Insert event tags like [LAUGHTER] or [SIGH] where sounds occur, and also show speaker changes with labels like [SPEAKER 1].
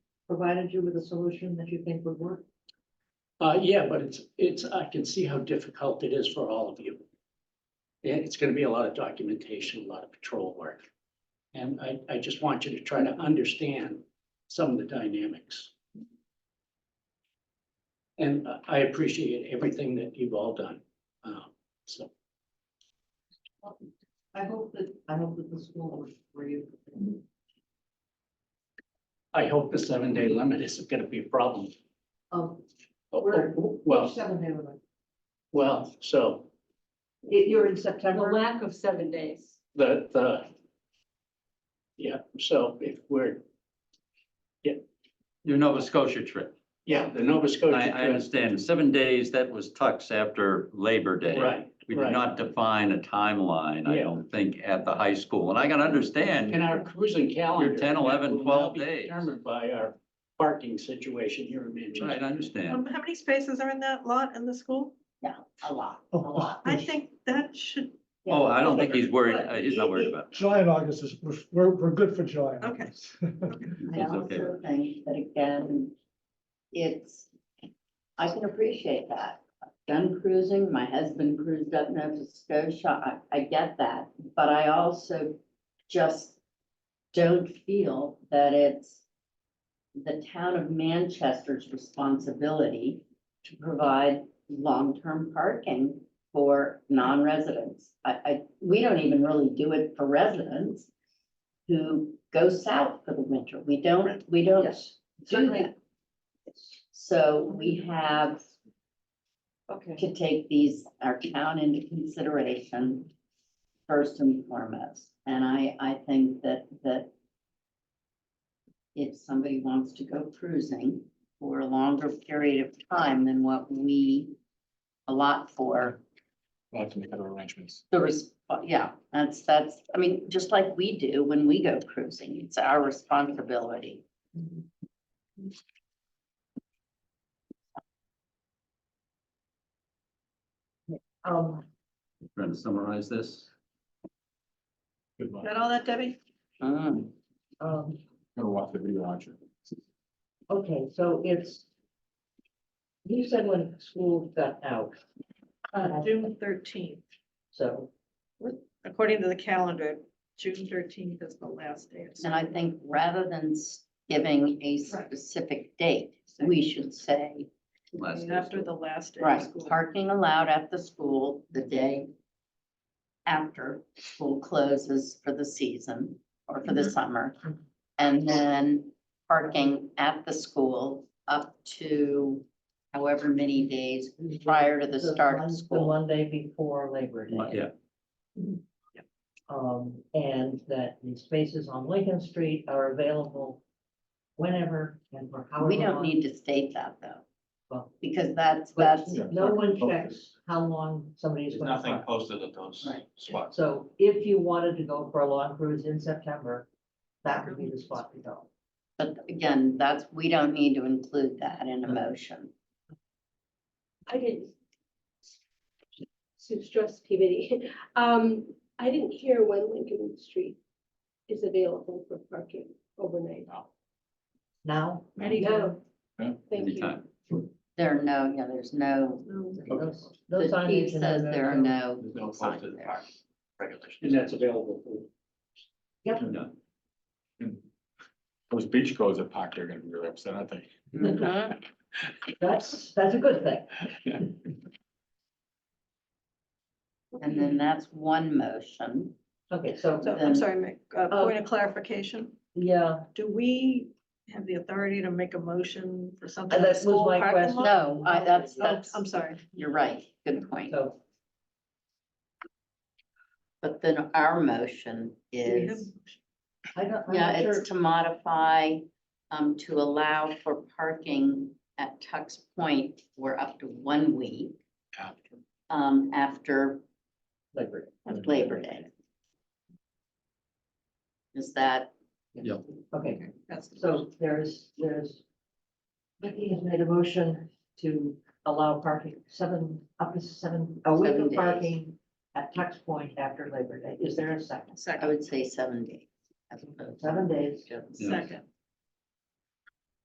[SPEAKER 1] provided you with a solution that you think would work?
[SPEAKER 2] Uh, yeah, but it's, it's, I can see how difficult it is for all of you. And it's gonna be a lot of documentation, a lot of patrol work. And I, I just want you to try to understand some of the dynamics. And I- I appreciate everything that you've all done. Um, so,
[SPEAKER 1] I hope that, I hope that the school works for you. Um,
[SPEAKER 2] I hope the seven day limit isn't gonna be a problem.
[SPEAKER 1] Um,
[SPEAKER 2] Oh,
[SPEAKER 1] We're-
[SPEAKER 2] oh, Well,
[SPEAKER 1] seven day limit.
[SPEAKER 2] well, so
[SPEAKER 1] If you're in
[SPEAKER 3] The
[SPEAKER 1] September,
[SPEAKER 3] lack of seven days.
[SPEAKER 2] the, the. Yeah, so if we're,
[SPEAKER 4] Your Nova Scotia trip.
[SPEAKER 2] yeah, the Nova Scotia.
[SPEAKER 4] I, I understand. Seven days, that was tucks after Labor Day.
[SPEAKER 2] Right.
[SPEAKER 4] We
[SPEAKER 2] right.
[SPEAKER 4] did not define a timeline, I
[SPEAKER 2] Yeah.
[SPEAKER 4] don't think, at the high school. And I can
[SPEAKER 2] And
[SPEAKER 4] understand,
[SPEAKER 2] our cruising calendar.
[SPEAKER 4] 10, 11,
[SPEAKER 2] will now
[SPEAKER 4] 12
[SPEAKER 2] be
[SPEAKER 4] days.
[SPEAKER 2] Determined by our parking situation here in Manchester.
[SPEAKER 4] right, I understand.
[SPEAKER 5] Um, how many spaces are in that lot in the school?
[SPEAKER 3] A lot,
[SPEAKER 6] a lot.
[SPEAKER 5] I think that should,
[SPEAKER 4] Oh, I don't think he's worried, uh, he's not worried about
[SPEAKER 6] July and August is, we're- we're, we're good for July. and
[SPEAKER 5] Okay.
[SPEAKER 6] August. [LAUGHS]
[SPEAKER 7] I
[SPEAKER 4] it. It's okay.
[SPEAKER 7] also think that again, it's, I can appreciate that. I've Done cruising, my husband cruised up Nova Scotia, I, I get that, but I also just don't feel that it's the town of Manchester's responsibility to provide long-term parking for non-residents. I, I, we don't even really do it for residents who go south for the winter. We don't, we don't
[SPEAKER 1] yes,
[SPEAKER 7] do
[SPEAKER 1] certainly,
[SPEAKER 7] that. So we have
[SPEAKER 1] okay.
[SPEAKER 7] to take these, our town into consideration first and foremost. And I, I think that, that if somebody wants to go cruising for a longer period of time than what we allot for,
[SPEAKER 8] We'll have to make other arrangements.
[SPEAKER 7] the res, yeah, that's, that's, I mean, just like we do when we go cruising, it's our responsibility.
[SPEAKER 1] Um,
[SPEAKER 4] Trying to summarize this.
[SPEAKER 8] Good luck.
[SPEAKER 5] that all that, Debbie?
[SPEAKER 4] Mm.
[SPEAKER 1] um,
[SPEAKER 8] I'm gonna watch the video on you.
[SPEAKER 1] okay, so it's, you said when school got out, Um,
[SPEAKER 5] Uh, June thirteenth,
[SPEAKER 1] so
[SPEAKER 5] according to the calendar, June thirteenth is the last day. of
[SPEAKER 7] And I
[SPEAKER 5] school.
[SPEAKER 7] think rather than s- giving a specific date, we should say,
[SPEAKER 4] Last day of
[SPEAKER 5] After the last day of
[SPEAKER 7] right,
[SPEAKER 5] school.
[SPEAKER 7] parking allowed at the school the day after school closes for the season or
[SPEAKER 1] Mm-hmm.
[SPEAKER 7] for the summer. And then parking at the school up to however many days prior to the start
[SPEAKER 1] Mon-
[SPEAKER 7] of
[SPEAKER 1] the
[SPEAKER 7] school.
[SPEAKER 1] Monday before Labor Day.
[SPEAKER 4] Yeah,
[SPEAKER 1] Um, and that the spaces on Lincoln Street are available whenever and for however
[SPEAKER 7] We don't
[SPEAKER 1] long.
[SPEAKER 7] need to state that though,
[SPEAKER 1] Well-
[SPEAKER 7] because that's,
[SPEAKER 1] But
[SPEAKER 7] that's,
[SPEAKER 1] No one checks how long somebody is gonna
[SPEAKER 8] Nothing
[SPEAKER 1] park.
[SPEAKER 8] posted at those
[SPEAKER 7] Right.
[SPEAKER 8] spots.
[SPEAKER 1] So if you wanted to go for a long cruise in September, that would be the spot to go.
[SPEAKER 7] but again, that's, we don't need to include that in a
[SPEAKER 1] Mm-hmm.
[SPEAKER 7] motion.
[SPEAKER 9] I didn't. Sue Strauss Peabody. Um, I didn't hear when Lincoln Street is available for parking overnight.
[SPEAKER 1] Now,
[SPEAKER 5] Anytime.
[SPEAKER 9] Thank you.
[SPEAKER 4] Anytime.
[SPEAKER 7] There are no, yeah, there's no,
[SPEAKER 1] those,
[SPEAKER 7] the
[SPEAKER 1] those signage.
[SPEAKER 7] chief
[SPEAKER 1] and
[SPEAKER 7] says
[SPEAKER 1] the-
[SPEAKER 7] there are no
[SPEAKER 8] There's no
[SPEAKER 7] signs
[SPEAKER 8] posted
[SPEAKER 7] there.
[SPEAKER 8] park
[SPEAKER 2] And
[SPEAKER 8] regulations.
[SPEAKER 2] that's available for
[SPEAKER 4] Yeah.
[SPEAKER 8] Those beach goers at park, they're gonna be really upset, I think.
[SPEAKER 7] Mhm.
[SPEAKER 1] That's, that's a good thing.
[SPEAKER 7] And then that's one motion.
[SPEAKER 1] Okay, so,
[SPEAKER 5] So I'm
[SPEAKER 7] Then-
[SPEAKER 5] sorry, Mick, uh,
[SPEAKER 1] Oh.
[SPEAKER 5] point of clarification,
[SPEAKER 1] yeah,
[SPEAKER 5] do we have the authority to make a motion for something?
[SPEAKER 1] Uh,
[SPEAKER 5] in the
[SPEAKER 1] that was
[SPEAKER 5] school
[SPEAKER 1] my
[SPEAKER 5] parking
[SPEAKER 1] question.
[SPEAKER 5] lot?
[SPEAKER 7] No, I, that's,
[SPEAKER 5] Oh,
[SPEAKER 7] that's,
[SPEAKER 5] I'm sorry.
[SPEAKER 7] you're right, good point.
[SPEAKER 1] so
[SPEAKER 7] But then our motion
[SPEAKER 5] Do we have-
[SPEAKER 7] is,
[SPEAKER 1] I don't, I'm
[SPEAKER 7] yeah,
[SPEAKER 1] not sure.
[SPEAKER 7] it's to modify, um, to allow for parking at Tuck's Point for up to one week.
[SPEAKER 8] After.
[SPEAKER 7] Um, after
[SPEAKER 1] Labor Day.
[SPEAKER 7] Labor Day. Is that,
[SPEAKER 1] Okay.
[SPEAKER 5] Okay, That's the
[SPEAKER 1] So there's, there's. Vicky has made a motion to allow parking seven, up to seven, a week
[SPEAKER 7] Seven
[SPEAKER 1] of
[SPEAKER 7] days.
[SPEAKER 1] parking at Tux Point after Labor Day. Is there a second?
[SPEAKER 7] I
[SPEAKER 5] second,
[SPEAKER 7] would say seven days. as opposed to
[SPEAKER 1] Seven days.
[SPEAKER 7] just-
[SPEAKER 8] Mm.
[SPEAKER 4] Yeah.
[SPEAKER 5] second.